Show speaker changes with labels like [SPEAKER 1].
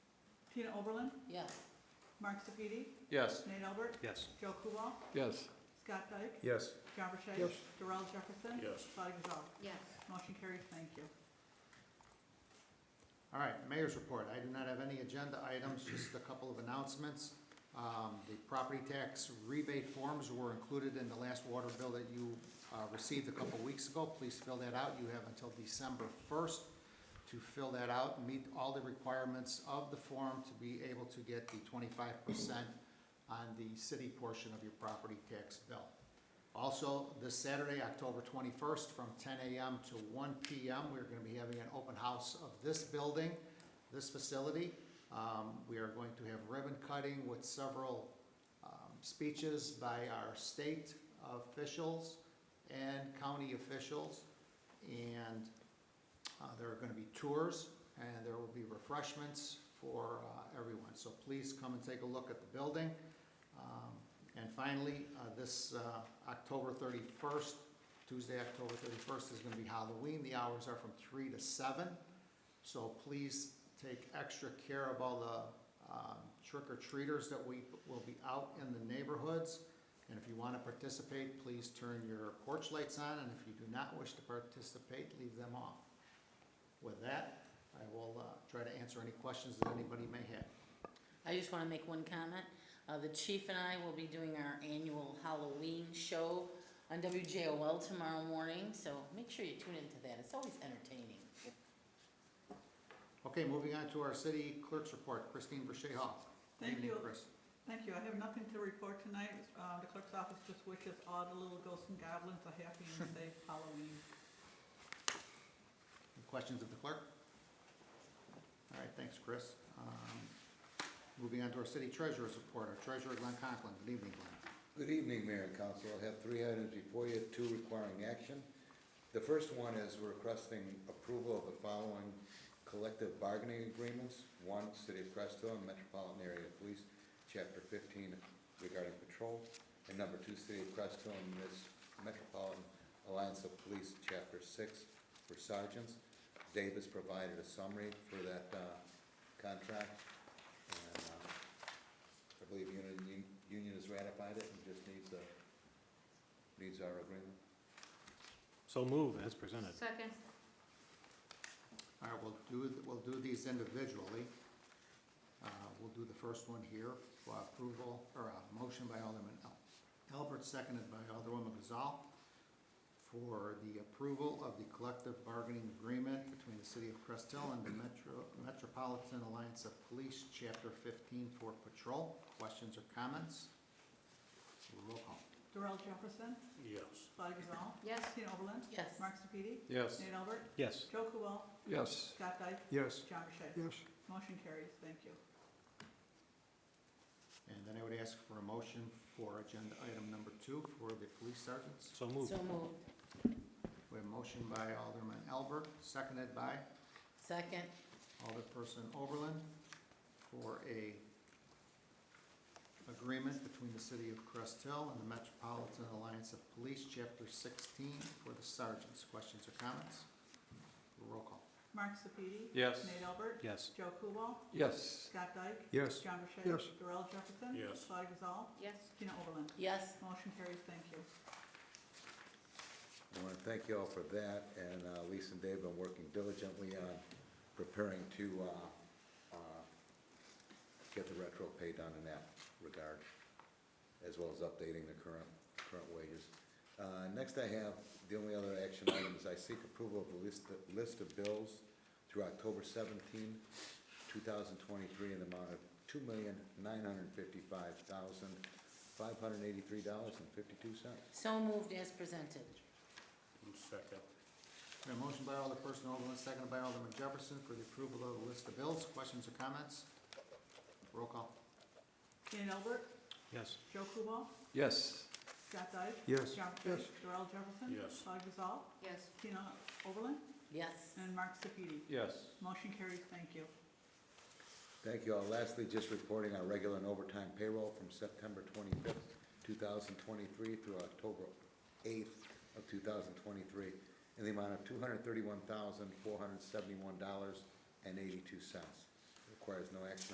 [SPEAKER 1] Tina Oberlin,
[SPEAKER 2] Yes.
[SPEAKER 1] Mark Sepiti,
[SPEAKER 3] Yes.
[SPEAKER 1] Nate Albert,
[SPEAKER 4] Yes.
[SPEAKER 1] Joe Kubal,
[SPEAKER 3] Yes.
[SPEAKER 1] Scott Dyke,
[SPEAKER 4] Yes.
[SPEAKER 1] John Burchett.
[SPEAKER 3] Yes.
[SPEAKER 1] Darrell Jefferson.
[SPEAKER 4] Yes.
[SPEAKER 1] Claudia Gazal.
[SPEAKER 2] Yes.
[SPEAKER 1] Motion carries, thank you.
[SPEAKER 5] All right, mayor's report. I do not have any agenda items, just a couple of announcements. Um, the property tax rebate forms were included in the last water bill that you, uh, received a couple weeks ago. Please fill that out. You have until December first to fill that out and meet all the requirements of the form to be able to get the twenty-five percent on the city portion of your property tax bill. Also, this Saturday, October 21st, from 10 a.m. to 1 p.m., we're going to be having an open house of this building, this facility. Um, We are going to have ribbon cutting with several um, speeches by our state officials and county officials. And uh, there are going to be tours, and there will be refreshments for uh, everyone. So please come and take a look at the building. Um, And finally, uh, this uh, October 31st, Tuesday, October 31st is going to be Halloween. The hours are from 3 to 7. So please take extra care of all the um, trick-or-treaters that we will be out in the neighborhoods. And if you want to participate, please turn your porch lights on, and if you do not wish to participate, leave them off. With that, I will uh, try to answer any questions that anybody may have.
[SPEAKER 2] I just want to make one comment. Uh, the chief and I will be doing our annual Halloween show on WJOL tomorrow morning, so make sure you tune into that. It's always entertaining.
[SPEAKER 5] Okay, moving on to our city clerk's report, Christine Verche Hall.
[SPEAKER 1] Thank
[SPEAKER 5] Evening,
[SPEAKER 1] you.
[SPEAKER 5] Chris.
[SPEAKER 1] Thank you. I have nothing to report tonight. Uh, The clerk's office just wishes all the little ghosts and goblins a happy and safe Halloween.
[SPEAKER 5] Any Questions of the clerk? All right, thanks, Chris. Um, Moving on to our city treasurer's report, our treasurer Glenn Conklin. Good evening, Glenn.
[SPEAKER 6] Good evening, Mayor and Council. I have three items before you, two requiring action. The first one is we're requesting approval of the following collective bargaining agreements. One, City of Presto and Metropolitan Area Police, Chapter fifteen regarding patrol. And number two, City of Presto and this Metropolitan Alliance of Police, Chapter six for sergeants. Dave has provided a summary for that, uh, contract. And, uh, I believe Union, Union has ratified it and just needs the, needs our agreement.
[SPEAKER 4] So move as presented.
[SPEAKER 2] Second.
[SPEAKER 5] All right, we'll do, we'll do these individually. Uh, We'll do the first one here for approval, or a motion by Alderman Al- Albert, seconded by Alderwoman Gazal, for the approval of the collective bargaining agreement between the City of Crest Hill and the Metro- Metropolitan Alliance of Police, Chapter 15 for patrol. Questions or comments? Roll call.
[SPEAKER 1] Darrell Jefferson,
[SPEAKER 4] Yes.
[SPEAKER 1] Claudia Gazal.
[SPEAKER 2] Yes.
[SPEAKER 1] Tina Oberlin,
[SPEAKER 2] Yes.
[SPEAKER 1] Mark Sepiti,
[SPEAKER 3] Yes.
[SPEAKER 1] Nate Albert,
[SPEAKER 4] Yes.
[SPEAKER 1] Joe Kubal,
[SPEAKER 3] Yes.
[SPEAKER 1] Scott Dyke,
[SPEAKER 4] Yes.
[SPEAKER 1] John Burchett.
[SPEAKER 3] Yes.
[SPEAKER 1] Motion carries, thank you.
[SPEAKER 5] And then I would ask for a motion for agenda item number two for the police sergeants.
[SPEAKER 4] So move.
[SPEAKER 2] So moved.
[SPEAKER 5] We have a motion by Alderman Albert, seconded by
[SPEAKER 2] Second.
[SPEAKER 5] Alderperson Oberlin for a agreement between the City of Crest Hill and the Metropolitan Alliance of Police, Chapter sixteen, for the sergeants. Questions or comments? Roll call.
[SPEAKER 1] Mark Sepiti.
[SPEAKER 3] Yes.
[SPEAKER 1] Nate Albert,
[SPEAKER 4] Yes.
[SPEAKER 1] Joe Kubal,
[SPEAKER 3] Yes.
[SPEAKER 1] Scott Dyke,
[SPEAKER 4] Yes.
[SPEAKER 1] John Burchett.
[SPEAKER 4] Yes.
[SPEAKER 1] Darrell Jefferson.
[SPEAKER 4] Yes.
[SPEAKER 1] Claudia Gazal,
[SPEAKER 2] Yes.
[SPEAKER 1] Tina Oberlin.
[SPEAKER 2] Yes.
[SPEAKER 1] Motion carries, thank you.
[SPEAKER 6] I want to thank you all for that, and uh, Lisa and Dave have been working diligently on preparing to uh, uh, get the retro pay done in that regard, as well as updating the current, current wages. Uh, Next I have, the only other action item is I seek approval of the list, list of bills through October 17, 2023, in the amount of $2,955,583.52.
[SPEAKER 2] So moved as presented.
[SPEAKER 4] Second.
[SPEAKER 5] We have a motion by Alderperson Oberlin, seconded by Alderman Jefferson for the approval of the list of bills. Questions or comments? Roll call.
[SPEAKER 1] Nate Albert,
[SPEAKER 4] Yes.
[SPEAKER 1] Joe Kubal,
[SPEAKER 3] Yes.
[SPEAKER 1] Scott Dyke.
[SPEAKER 4] Yes.
[SPEAKER 1] John Burchett. Darrell Jefferson.
[SPEAKER 4] Yes.
[SPEAKER 1] Claudia Gazal,
[SPEAKER 2] Yes.
[SPEAKER 1] Tina Oberlin,
[SPEAKER 2] Yes.
[SPEAKER 1] and Mark Sepiti.
[SPEAKER 3] Yes.
[SPEAKER 1] Motion carries, thank you.
[SPEAKER 6] Thank you all. Lastly, just reporting our regular and overtime payroll from September twenty-fifth, two thousand twenty-three through October eighth of two thousand twenty-three in the amount of two hundred thirty-one thousand, four hundred seventy-one dollars and eighty-two cents. Requires no action